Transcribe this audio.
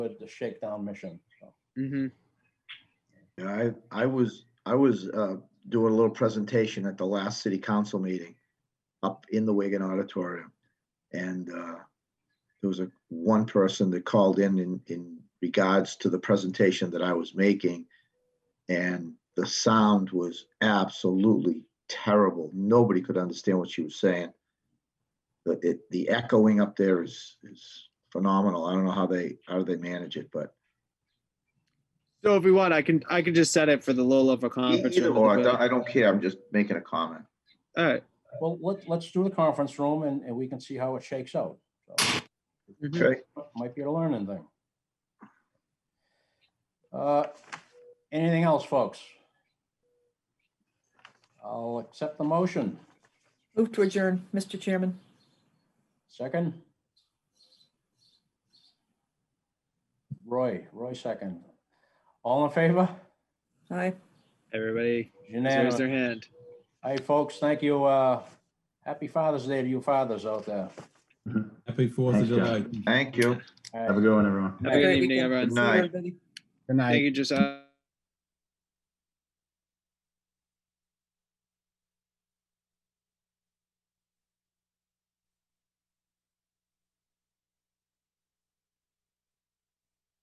good the shakedown mission. so. Mm-hmm. Yeah, I, I was, I was, uh, doing a little presentation at the last city council meeting up in the Wigan Auditorium. And, uh, there was a, one person that called in, in, in regards to the presentation that I was making. And the sound was absolutely terrible. Nobody could understand what she was saying. The, it, the echoing up there is, is phenomenal. I don't know how they, how they manage it, but So if we want, I can I can just set it for the low level conference. Either room. or, I don't- I don't care, I'm just making a comment. All right. Well, let, let's do the conference room and, and we can see how it shakes out. So, Mhm. Okay, Might be a learning thing. Uh, Anything else, folks? I'll accept the motion. Move to adjourn, Mr. Chairman. Second? Roy, Roy second. All in favor? Aye. Everybody raise Unanimous. their hand. Hey, folks, thank you. Uh, Happy Father's Day to you fathers out there. Happy Fourth of Thanks, July. John. thank you. All right. Have a good one, everyone. Have a Great good evening, weekend. everyone. See you, Night. everybody. Thank you, Josiah.